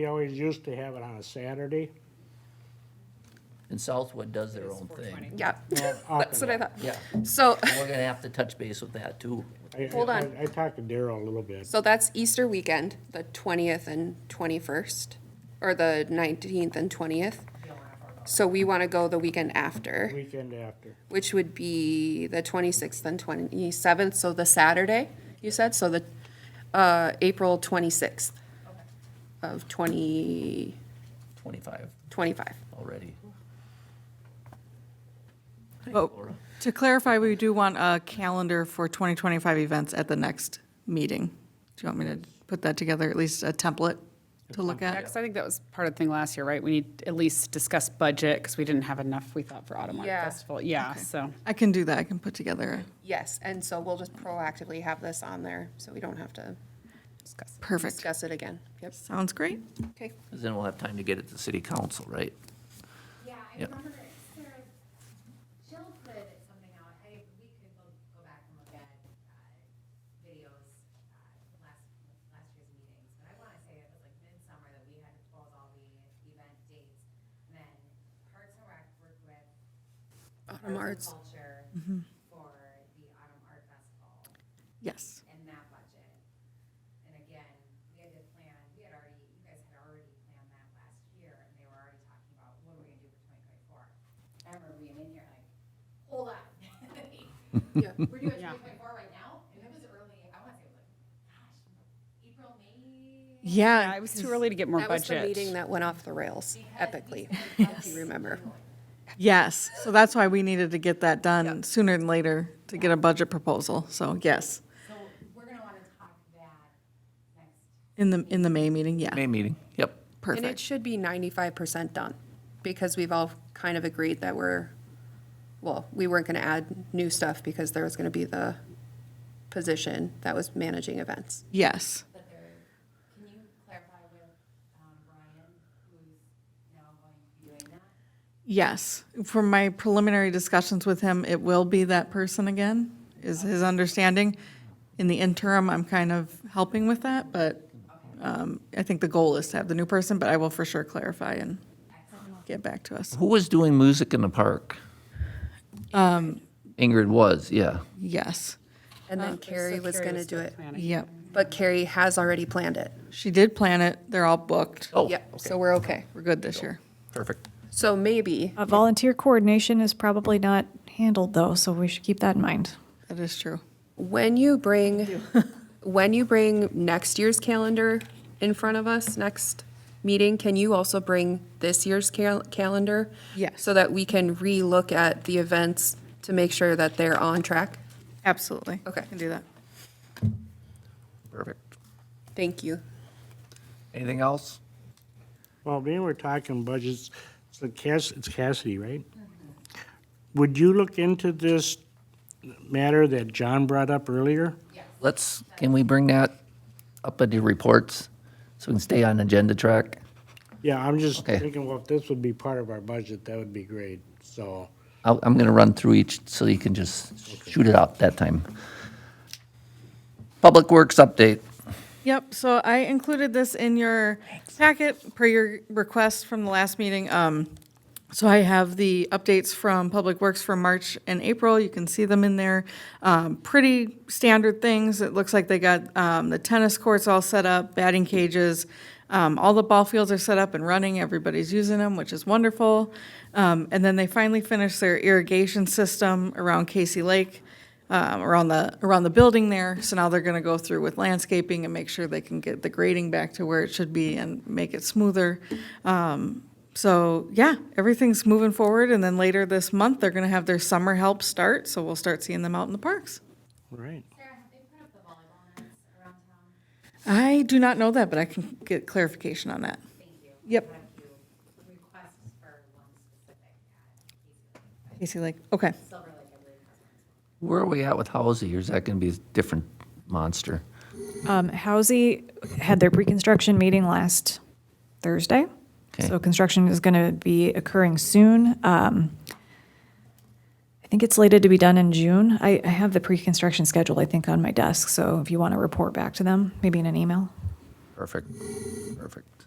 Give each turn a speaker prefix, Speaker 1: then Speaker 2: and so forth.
Speaker 1: We always used to have it on a Saturday.
Speaker 2: And Southwood does their own thing.
Speaker 3: Yeah, that's what I thought.
Speaker 2: Yeah,
Speaker 3: So,
Speaker 2: and we're gonna have to touch base with that too.
Speaker 1: I-
Speaker 3: Hold
Speaker 1: I-
Speaker 3: on.
Speaker 1: I talked to Daryl a little bit.
Speaker 3: so that's Easter weekend, the twentieth and twenty-first, or the nineteenth and twentieth. So we want to go the weekend after,
Speaker 1: Weekend after.
Speaker 3: which would be the twenty-sixth and twenty-seventh, so the Saturday, you said, so the, uh, April twenty-sixth of twenty
Speaker 2: Twenty-five
Speaker 3: twenty-five.
Speaker 2: already.
Speaker 4: But Oh, to clarify, we do want a calendar for 2025 events at the next meeting. Do you want me to put that together, at least a template to look
Speaker 5: Yeah,
Speaker 4: at?
Speaker 5: 'cause I think that was part of the thing last year, right? We need to at least discuss budget, because we didn't have enough, we thought, for Autumn Art
Speaker 3: Yeah.
Speaker 5: Festival. Yeah, so,
Speaker 4: I can do that, I can put together, a-
Speaker 3: Yes, and so we'll just proactively have this on there, so we don't have to
Speaker 5: discuss.
Speaker 4: perfect.
Speaker 3: discuss it again. Yep,
Speaker 4: Sounds great.
Speaker 3: okay.
Speaker 2: Cause then we'll have time to get it to city council, right?
Speaker 6: Yeah, I
Speaker 2: Yep.
Speaker 6: remember Sarah, Jill put something out, I, we could go, go back and look at, uh, videos, uh, last, last year's meetings, but I wanna say it was like midsummer that we had to close all the event dates. And then Parks and Rec worked with
Speaker 3: Autumn
Speaker 6: Arts
Speaker 3: Arts.
Speaker 6: and Culture for the Autumn Art Festival
Speaker 4: Yes.
Speaker 6: and that budget. And again, we had to plan, we had already, you guys had already planned that last year, and they were already talking about what we're gonna do for twenty twenty-four. I remember being in here like, hold on.
Speaker 3: Yeah.
Speaker 5: Yeah.
Speaker 6: We're doing twenty twenty-four right now, and it was early, I wanna say it was like, gosh, April, May?
Speaker 4: Yeah.
Speaker 5: Yeah, it was too early to get more
Speaker 3: That was the meeting
Speaker 5: budget.
Speaker 3: that went off the rails epically, if you remember.
Speaker 4: Yes, so that's why we needed to get that done sooner than later to get a budget proposal, so yes.
Speaker 6: So we're gonna wanna talk that next.
Speaker 4: In the, in the May meeting, yeah,
Speaker 2: May meeting, yep.
Speaker 3: And it
Speaker 4: perfect.
Speaker 3: should be ninety-five percent done, because we've all kind of agreed that we're, well, we weren't gonna add new stuff because there was gonna be the position that was managing events.
Speaker 4: Yes,
Speaker 6: But there, can you clarify with, um, Brian, who's now going to be doing that?
Speaker 4: yes. From my preliminary discussions with him, it will be that person again, is his understanding. In the interim, I'm kind of helping with that, but um, I think the goal is to have the new person, but I will for sure clarify and get back to us.
Speaker 2: Who was doing music in the park? Ingrid was, yeah.
Speaker 4: Yes,
Speaker 3: And then Oh, Carrie was gonna do it,
Speaker 4: yep.
Speaker 3: but Carrie has already planned it.
Speaker 4: She did plan it, they're all booked.
Speaker 2: Oh,
Speaker 3: Yep, so we're okay.
Speaker 4: We're good this year.
Speaker 2: perfect.
Speaker 3: So maybe,
Speaker 7: Uh, Volunteer coordination is probably not handled though, so we should keep that in mind.
Speaker 4: That is true.
Speaker 3: when you bring, when you bring next year's calendar in front of us, next meeting, can you also bring this year's cal- calendar?
Speaker 4: Yes.
Speaker 3: So that we can relook at the events to make sure that they're on track?
Speaker 4: Absolutely.
Speaker 3: Okay.
Speaker 4: Can do that.
Speaker 2: Perfect.
Speaker 3: Thank you.
Speaker 2: Anything else?
Speaker 1: Well, being we're talking budgets, so Cass, it's Cassidy, right?
Speaker 3: Mm-hmm.
Speaker 1: Would you look into this matter that John brought up earlier?
Speaker 2: Let's, can we bring that up into reports so we can stay on agenda track?
Speaker 1: Yeah, I'm just
Speaker 2: Okay.
Speaker 1: thinking, well, if this would be part of our budget, that would be great, so.
Speaker 2: I'll, I'm gonna run through each so you can just shoot it out that time. Public Works update.
Speaker 4: Yep, so I included this in your packet per your request from the last meeting. Um, So I have the updates from Public Works for March and April. You can see them in there. Um, Pretty standard things. It looks like they got um, the tennis courts all set up, batting cages. Um, All the ball fields are set up and running. Everybody's using them, which is wonderful. Um, And then they finally finished their irrigation system around Casey Lake um, around the, around the building there. So now they're gonna go through with landscaping and make sure they can get the grading back to where it should be and make it smoother. Um, So, yeah, everything's moving forward, and then later this month, they're gonna have their summer help start, so we'll start seeing them out in the parks.
Speaker 1: All right.
Speaker 6: Sarah, have they put up the volleyball nets around town?
Speaker 4: I do not know that, but I can get clarification on that.
Speaker 6: Thank you.
Speaker 4: Yep.
Speaker 6: Thank you. Requests for one specific ad,
Speaker 4: Casey Lake, okay.
Speaker 6: Silver Lake, I believe, has one.
Speaker 2: Where are we at with Halsey, or is that gonna be a different monster?
Speaker 7: Um, Housy had their pre-construction meeting last Thursday.
Speaker 2: Okay.
Speaker 7: So construction is going to be occurring soon. Um, I think it's slated to be done in June. I, I have the pre-construction schedule, I think, on my desk. So if you want to report back to them, maybe in an email.
Speaker 2: Perfect, perfect.